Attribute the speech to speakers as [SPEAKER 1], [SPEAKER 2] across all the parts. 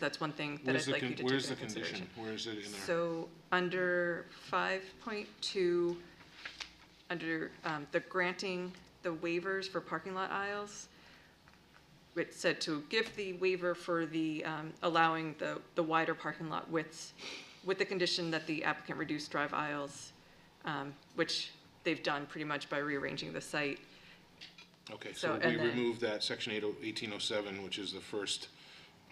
[SPEAKER 1] That's one thing that
[SPEAKER 2] Where's
[SPEAKER 1] I'd
[SPEAKER 2] the,
[SPEAKER 1] like you
[SPEAKER 2] con-
[SPEAKER 1] to take
[SPEAKER 2] where's the
[SPEAKER 1] into
[SPEAKER 2] condition?
[SPEAKER 1] consideration.
[SPEAKER 2] Where is it in there?
[SPEAKER 1] So under five point two, under um, the granting the waivers for parking lot aisles, it said to give the waiver for the um, allowing the, the wider parking lot widths with the condition that the applicant reduce drive aisles, um, which they've done pretty much by rearranging the site.
[SPEAKER 2] Okay,
[SPEAKER 1] so-
[SPEAKER 2] so
[SPEAKER 1] and
[SPEAKER 2] we
[SPEAKER 1] then-
[SPEAKER 2] removed that section oh, 80 1807, which is the first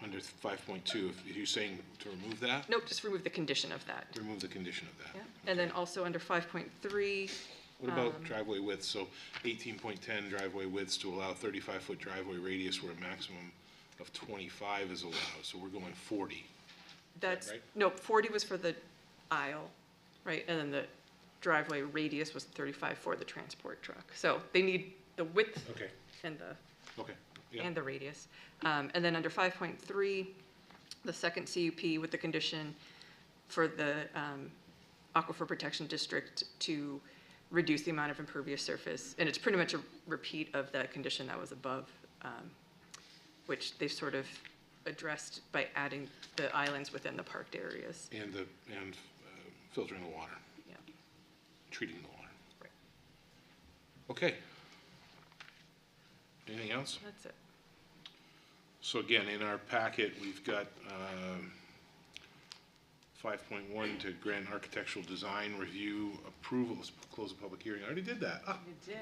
[SPEAKER 2] under 5.2. If You're saying to remove that?
[SPEAKER 1] Nope, just remove the condition of that.
[SPEAKER 2] Remove the condition of that.
[SPEAKER 1] Yeah. Um, And then also under five point three,
[SPEAKER 2] What about driveway widths? So 18.10 driveway widths to allow 35-foot driveway radius where a maximum of 25 is allowed. So we're going 40.
[SPEAKER 1] That's,
[SPEAKER 2] right?
[SPEAKER 1] no, forty was for the aisle, right, and then the driveway radius was thirty-five for the transport truck. So they need the width
[SPEAKER 2] Okay.
[SPEAKER 1] and the,
[SPEAKER 2] Okay, yeah,
[SPEAKER 1] and the radius. Um, and then under five point three, the second CUP with the condition for the, um, aquifer protection district to reduce the amount of impervious surface. And it's pretty much a repeat of that condition that was above, um, which they've sort of addressed by adding the islands within the parked areas.
[SPEAKER 2] and the, and uh, filtering the water,
[SPEAKER 1] Yeah,
[SPEAKER 2] treating the water.
[SPEAKER 1] right.
[SPEAKER 2] Okay. Anything else?
[SPEAKER 1] That's it.
[SPEAKER 2] So again, in our packet, we've got um, 5.1 to grant architectural design review approval, Let's close the public hearing. I already did that. Ah,
[SPEAKER 3] You did.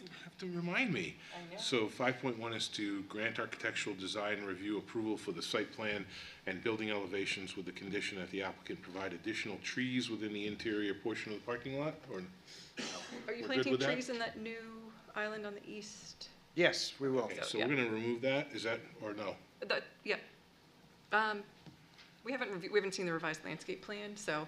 [SPEAKER 2] you have to remind me.
[SPEAKER 3] I know.
[SPEAKER 2] So 5.1 is to grant architectural design review approval for the site plan and building elevations with the condition that the applicant provide additional trees within the interior portion of the parking lot, or?
[SPEAKER 1] Are you
[SPEAKER 2] We're good
[SPEAKER 1] planting
[SPEAKER 2] with that?
[SPEAKER 1] trees in that new island on the east?
[SPEAKER 4] Yes, we will.
[SPEAKER 2] Okay,
[SPEAKER 1] So,
[SPEAKER 2] so we're
[SPEAKER 1] yeah.
[SPEAKER 2] gonna remove that, is that, or no?
[SPEAKER 1] That, yeah. Um, we haven't, reviewed- we haven't seen the revised landscape plan, so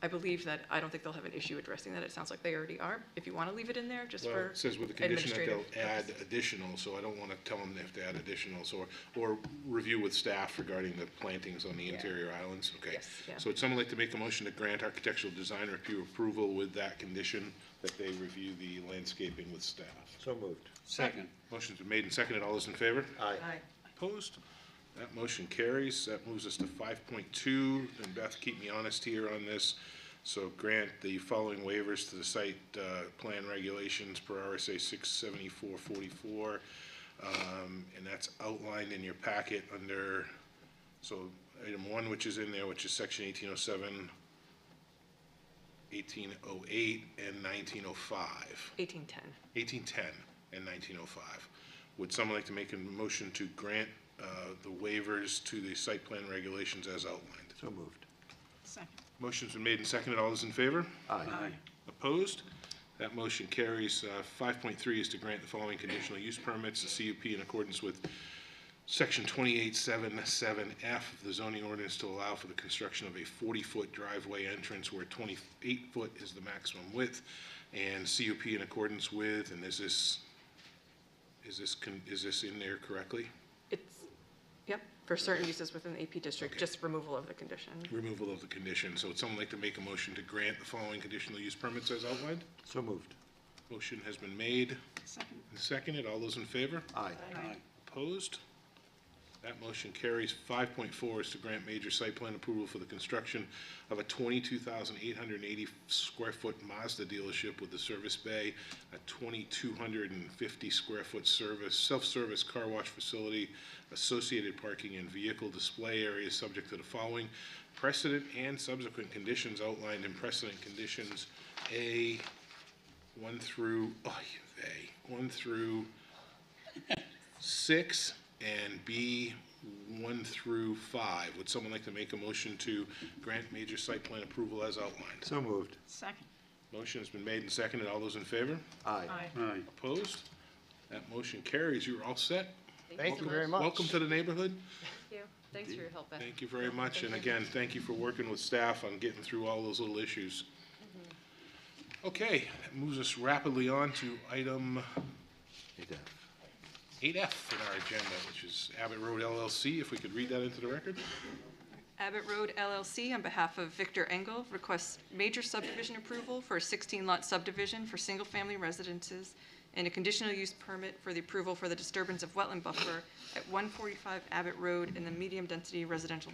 [SPEAKER 1] I believe that, I don't think they'll have an issue addressing that. It sounds like they already are. If you want to leave it in there, just
[SPEAKER 2] Well,
[SPEAKER 1] for
[SPEAKER 2] it says with the condition that
[SPEAKER 1] administrative
[SPEAKER 2] they'll add
[SPEAKER 1] purposes.
[SPEAKER 2] additional, so I don't want to tell them they have to add additionals, or, or review with staff regarding the plantings on the interior islands, okay?
[SPEAKER 1] Yes, yeah.
[SPEAKER 2] So would someone like to make a motion to grant architectural design review approval with that condition that they review the landscaping with staff?
[SPEAKER 4] So moved.
[SPEAKER 5] Second.
[SPEAKER 2] Motion's been made and seconded, all those in favor?
[SPEAKER 4] Aye.
[SPEAKER 2] Opposed? That motion carries. That moves us to five point two, and Beth, keep me honest here on this. So grant the following waivers to the site, uh, plan regulations per RSA six seventy-four forty-four. Um, and that's outlined in your packet under, so item one, which is in there, which is section 1807, 1808, and nineteen oh five.
[SPEAKER 1] 1810.
[SPEAKER 2] 1810 and 1905. Would someone like to make a motion to grant uh, the waivers to the site plan regulations as outlined?
[SPEAKER 4] So moved.
[SPEAKER 2] Motion's been made and seconded. All those in favor?
[SPEAKER 4] Aye.
[SPEAKER 2] Opposed? That motion carries. Uh, 5.3 is to grant the following conditional use permits, the CUP in accordance with Section 2877F of the zoning ordinance to allow for the construction of a 40-foot driveway entrance where 28-foot is the maximum width, and CUP in accordance with, and is this, is this, con- is this in there correctly?
[SPEAKER 1] It's, yep, for certain uses within the AP district,
[SPEAKER 2] Okay.
[SPEAKER 1] just removal of the condition.
[SPEAKER 2] Removal of the condition. So would someone like to make a motion to grant the following conditional use permits as outlined?
[SPEAKER 4] So moved.
[SPEAKER 2] Motion has been made and seconded. All those in favor?
[SPEAKER 4] Aye.
[SPEAKER 5] Aye.
[SPEAKER 2] Opposed? That motion carries. Five point four is to grant major site plan approval for the construction of a twenty-two thousand eight hundred and eighty square foot Mazda dealership with a service bay, a twenty-two hundred and fifty square foot service, self-service car wash facility, associated parking and vehicle display areas subject to the following precedent and subsequent conditions outlined in precedent conditions A one through, oh, A, one through six and B one through five. Would someone like to make a motion to grant major site plan approval as outlined?
[SPEAKER 4] So moved.
[SPEAKER 3] Second.
[SPEAKER 2] Motion has been made and seconded. All those in favor?
[SPEAKER 4] Aye.
[SPEAKER 5] Aye.
[SPEAKER 2] Opposed? That motion carries. You're all set.
[SPEAKER 4] Thank you very much.
[SPEAKER 2] Welcome to the neighborhood.
[SPEAKER 3] Thank you. Thanks for your help, Beth.
[SPEAKER 2] Thank you very much, and again, thank you for working with staff on getting through all those little issues.
[SPEAKER 4] Mm-hmm.
[SPEAKER 2] Okay, that moves us rapidly on to item
[SPEAKER 4] Eight F.
[SPEAKER 2] eight F in our agenda, which is Abbott Road LLC. If we could read that into the record?
[SPEAKER 1] Abbott Road LLC, on behalf of Victor Engel, requests major subdivision approval for a 16-lot subdivision for single-family residences and a conditional use permit for the approval for the disturbance of wetland buffer at 145 Abbott Road in the medium-density residential